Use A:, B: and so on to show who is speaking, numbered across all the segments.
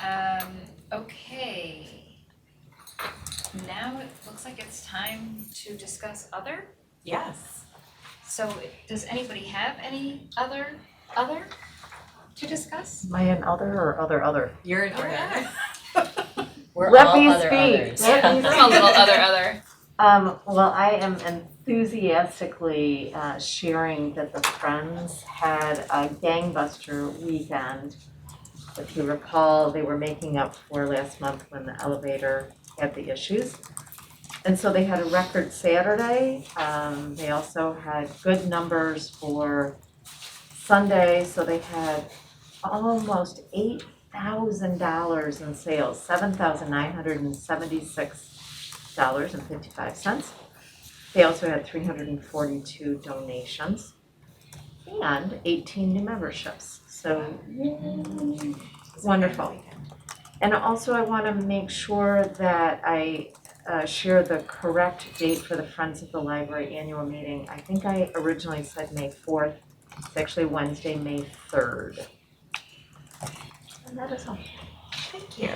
A: Um, okay. Now it looks like it's time to discuss other.
B: Yes.
A: So does anybody have any other, other to discuss?
C: Am I an other or other other?
B: You're an
A: You're
B: other.
A: not.
B: We're
C: Let
B: all
C: me
B: other
C: speak.
B: others.
C: Let me
A: I'm a little other, other.
C: Um, well, I am enthusiastically uh, sharing that the Friends had a gangbuster weekend. If you recall, they were making up for last month when the elevator had the issues. And so they had a record Saturday. Um, they also had good numbers for Sunday, so they had almost eight thousand dollars in sales, seven thousand nine hundred and seventy-six dollars and fifty-five cents. They also had three hundred and forty-two donations and eighteen new memberships, so yay, wonderful. And also I wanna make sure that I uh share the correct date for the Friends of the Library annual meeting. I think I originally said May fourth, it's actually Wednesday, May third. And that is all.
B: Thank you.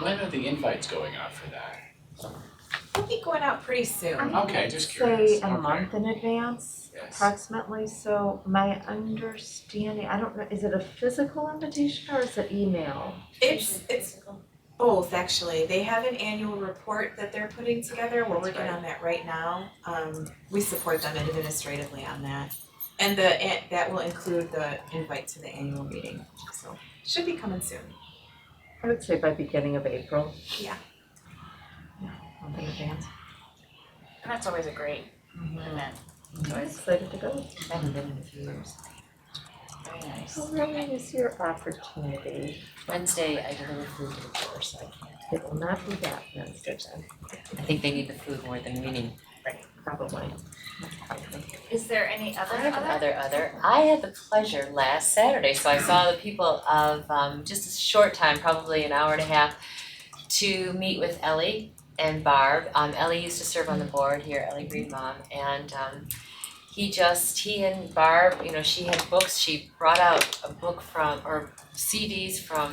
D: When are the invites going out for that?
B: We'll be going out pretty soon.
C: I
D: Okay,
C: would
D: just curious.
C: Say a
D: Okay.
C: month in advance
D: Yes.
C: approximately, so my understanding, I don't know, is it a physical invitation or is it email?
B: It's it's both actually. They have an annual report that they're putting together. We're working on that right now. Um, we support them administratively on that. And the and that will include the invite to the annual meeting. So should be coming soon.
C: I would say by beginning of April.
B: Yeah.
C: Yeah, month in advance.
A: And that's always a great event. It's
C: I'm
A: always
C: excited to go.
B: Haven't been in a few years.
A: very nice.
C: So really is your opportunity.
E: Wednesday, I deliver food to the poor, so I can't.
C: It will not be that Wednesday then,
E: I think they need the food more than we need.
C: probably.
A: Is there any other,
E: I have
A: other?
E: another other. I had the pleasure last Saturday, so I saw the people of um just a short time, probably an hour and a half, to meet with Ellie and Barb. Um Ellie used to serve on the board here, Ellie Green Mom, and um he just he and Barb, you know, she had books, she brought out a book from or CDs from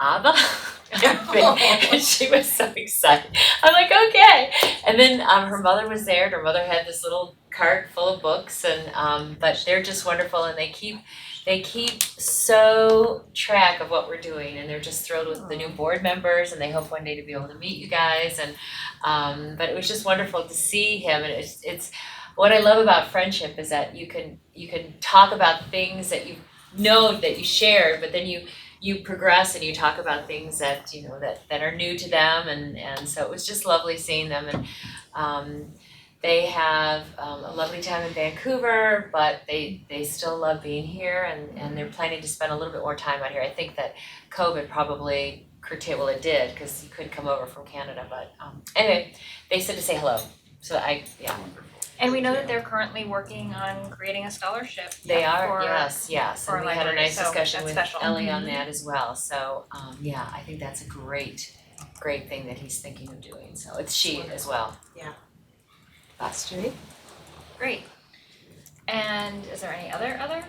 E: ABBA. and she was so excited. I'm like, okay. And then um, her mother was there, and her mother had this little cart full of books, and um, but they're just wonderful, and they keep they keep so track of what we're doing, and they're just thrilled with the new board members, and they hope one day to be able to meet you guys, and um, but it was just wonderful to see him, and it's it's what I love about friendship is that you can you can talk about things that you know that you shared, but then you you progress and you talk about things that you know that that are new to them and and so it was just lovely seeing them and um they have um a lovely time in Vancouver but they they still love being here and and they're planning to spend a little bit more time out here. I think that COVID probably curtailed well it did because you couldn't come over from Canada but um anyway they said to say hello. So I yeah
D: Wonderful.
A: And we know that they're currently working on creating a scholarship.
E: they are
A: for-
E: yes yes
A: for
E: and we had a
A: library,
E: nice
A: so
E: discussion
A: that's
E: with
A: special. Mm-hmm.
E: Ellie on that as well. So um yeah, I think that's a great great thing that he's thinking of doing, so it's she as well.
B: Yeah.
E: That's true.
A: Great. And is there any other other?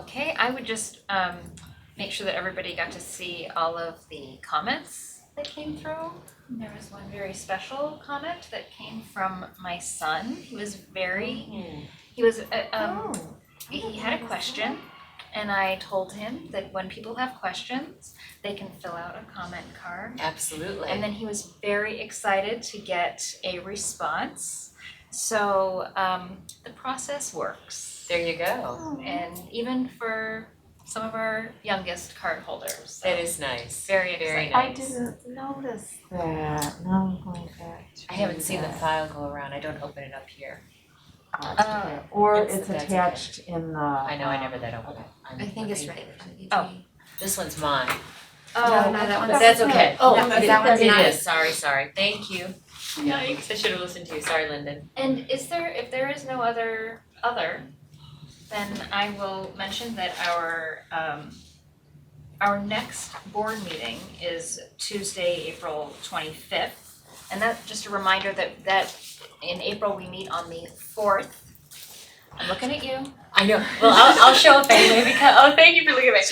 A: Okay, I would just um make sure that everybody got to see all of the comments that came through. There was one very special comment that came from my son. He was very,
E: Mm-hmm.
A: he was uh, um he had a question and I told him that when people have questions, they can fill out a comment card
E: Absolutely.
A: and then he was very excited to get a response. So um, the process works.
E: there you go.
A: And even for some of our youngest card holders. so
E: That is nice.
A: very
E: very
A: exciting.
C: I
E: Nice.
C: didn't notice that, now I'm going back to
E: I haven't seen the
C: that.
E: file go around. I don't open it up here.
C: Uh, Or
E: It's-
C: it's
E: that's okay.
C: attached in the.
E: I know I never that open it. I'm
F: I think it's
E: looking-
F: right in front of you,
A: Oh.
F: Jenny.
E: This one's mine.
F: No, no, that
E: But
F: one's.
E: that's okay.
F: Oh,
B: That
F: that
B: one's-
F: one's
E: It
F: not.
E: is. Sorry, sorry. Thank you. Yikes. I should have listened to you. Sorry, Lyndon.
A: And is there, if there is no other, other, then I will mention that our, um, our next board meeting is Tuesday, April twenty-fifth. And that, just a reminder that, that in April, we meet on the fourth. I'm looking at you.
E: I know. Well, I'll, I'll show up anyway because, oh, thank you for looking at me.